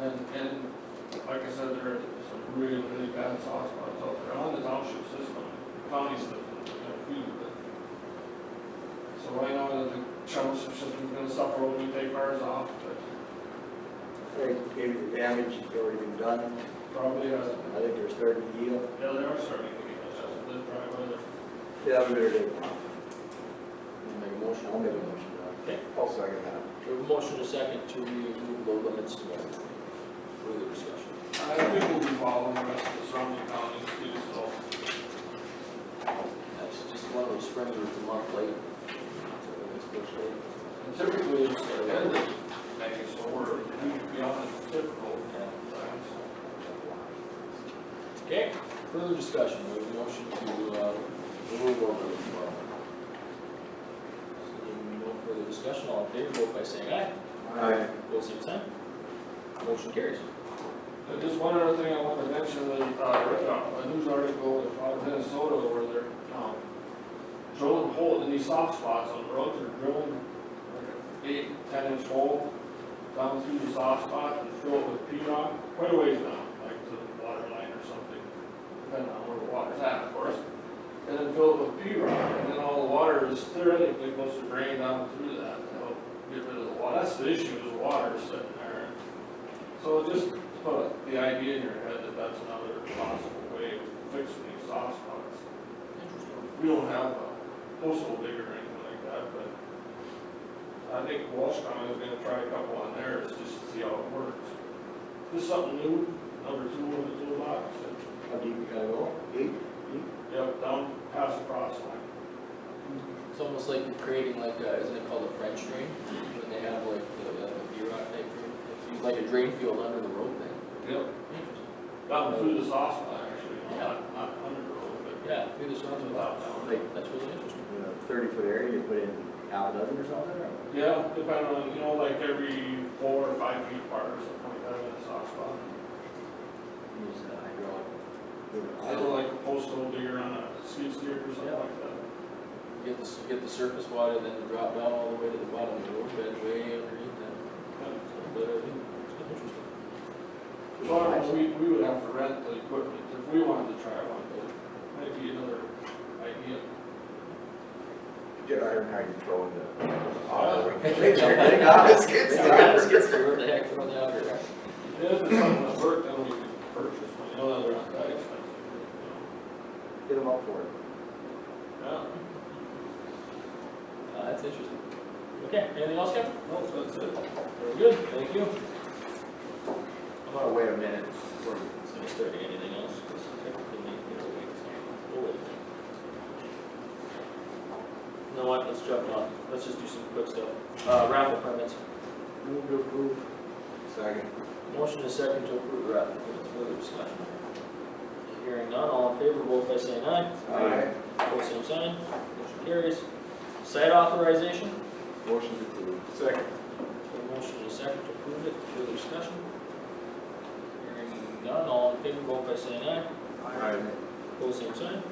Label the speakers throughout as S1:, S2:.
S1: And, and like I said, there are some really, really bad soft spots out there on the township system, county system, a few of them. So I know that the township system's gonna suffer when we take ours off, but
S2: Right, Maybe the damage has already been done.
S1: probably hasn't.
S2: I think they're starting to heal.
S1: Yeah, they are starting to get adjusted, this dry weather.
S2: Yeah, I'm ready.
S3: Make a motion, I'll make a motion.
S4: Okay.
S3: I'll second that.
S4: We have a motion to second to remove low limits to that. Further discussion.
S1: I think we'll be following the rest of the surrounding counties too, so.
S4: That's just one of those springs that's a month late. So it's pushed late.
S1: And Typically, it's the end of May, so we're, we'd be on the typical uh, times.
S4: Okay, further discussion, we have a motion to, uh, remove low limits tomorrow. Seeing no further discussion, all in favor, vote by saying aye.
S3: Aye.
S4: Vote same sign. Motion carries.
S1: And just one other thing I want to mention, that, uh, read a- a news article out of Minnesota where they're, um, drilling holes in these soft spots on the roads, they're drilling like a eight, ten inch hole down through the soft spot and fill it with P rock, quite a ways down, like to the water line or something, depending on where the water's at, of course. And then fill it with P rock, and then all the water is theoretically supposed to drain down through that to help get rid of the water. That's the issue, is water sitting there. So just put the idea in your head that that's another possible way of fixing these soft spots. We don't have a postal digger or anything like that, but I think Walsh County is gonna try a couple on theirs just to see how it works. This is something new, number two in the toolbox.
S2: How deep you gotta go? Eight?
S1: Yep, down past the cross line.
S4: It's almost like you're creating like, a- isn't it called a French drain? When they have like the, uh, the B-Rod type drain, It's used like a drain field under the road thing.
S1: Yep. Down through the soft spot actually, not, not under the road, but
S4: Yeah, through the soft spot.
S1: about down.
S2: Like
S4: That's really interesting.
S2: thirty foot area, you put in half a dozen or something? or?
S1: Yeah, depending on, you know, like every four or five feet apart or something like that in a soft spot.
S2: Use the hydraulic.
S1: I don't like a postal digger on a skid steer or something like that.
S4: You Get the, you get the surface water, then you drop down all the way to the bottom of the road bed, way underneath that. But, uh, it's interesting.
S1: Well, we, we would have to rent the equipment if we wanted to try one, but might be another idea.
S3: Get iron how you throw in
S1: Uh,
S3: the.
S4: They
S2: got us, kids.
S4: Yeah, that's good for what the heck from the outer.
S1: If it's something that worked, then we could purchase one, you know, they're not that expensive.
S2: Get them up for it.
S1: you know.
S4: Uh, that's interesting. Okay, anything else, Kevin?
S1: Yeah, no, that's it.
S4: Very good, thank you.
S3: I'm gonna wait a minute.
S4: It's gonna start anything else, 'cause technically, you know, we can't pull it. You know what, let's jump on, let's just do some quick stuff. Uh, raffle permits.
S2: Move to approve.
S3: Second.
S4: Motion is second to approve the raffle permits, further discussion. Hearing none, all in favor, vote by saying aye.
S3: Aye.
S4: Pose same sign, motion carries. Site authorization?
S3: Motion approved. Second.
S4: A motion and a second to approve it, further discussion? Hearing none, all in favor, vote by saying aye.
S3: Aye.
S4: Pose same sign.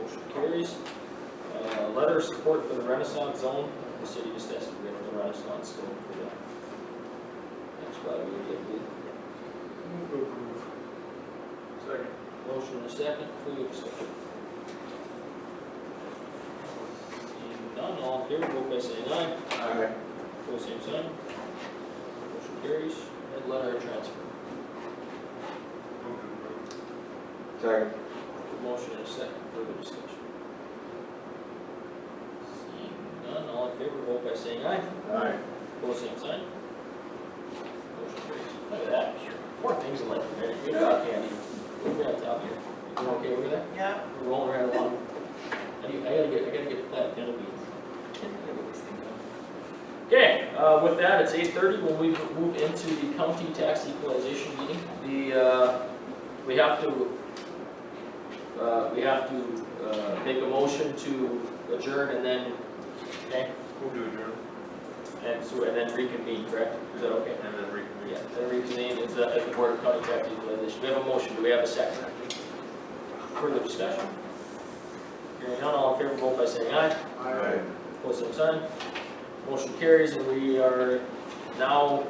S4: Motion carries. Uh, letter of support for the Renaissance Zone, the city just has to bring the Renaissance Zone for that. That's why we get the
S2: Move to approve.
S3: Second.
S4: motion and a second, further discussion? Seeing none, all in favor, vote by saying aye.
S3: Aye.
S4: Pull same sign. Motion carries. Red letter of transfer.
S3: Second.
S4: Motion and a second. Further discussion. Seeing none, all in favor, vote by saying aye.
S3: Aye.
S4: Pull same sign. Motion carries. Look at that. Four things in like a minute. Good job, Candy. Look at that top here. You okay over there?
S5: Yeah.
S4: We're rolling right along. I need- I gotta get, I gotta get plant panel beans. I gotta get this thing done. Okay, uh, with that, it's eight thirty, when we move into the county tax equalization meeting, the, uh, we have to, uh, we have to, uh, make a motion to adjourn and then, okay,
S1: We'll do adjourn.
S4: and so, and then reconvene, correct? Is that okay?
S1: And then reconvene.
S4: Yeah, then reconvene as the, as the board of county tax equalization, we have a motion, do we have a second? Further discussion? Hearing none, all in favor, vote by saying aye.
S3: Aye.
S4: Opposed, same sign. Motion carries, and we are now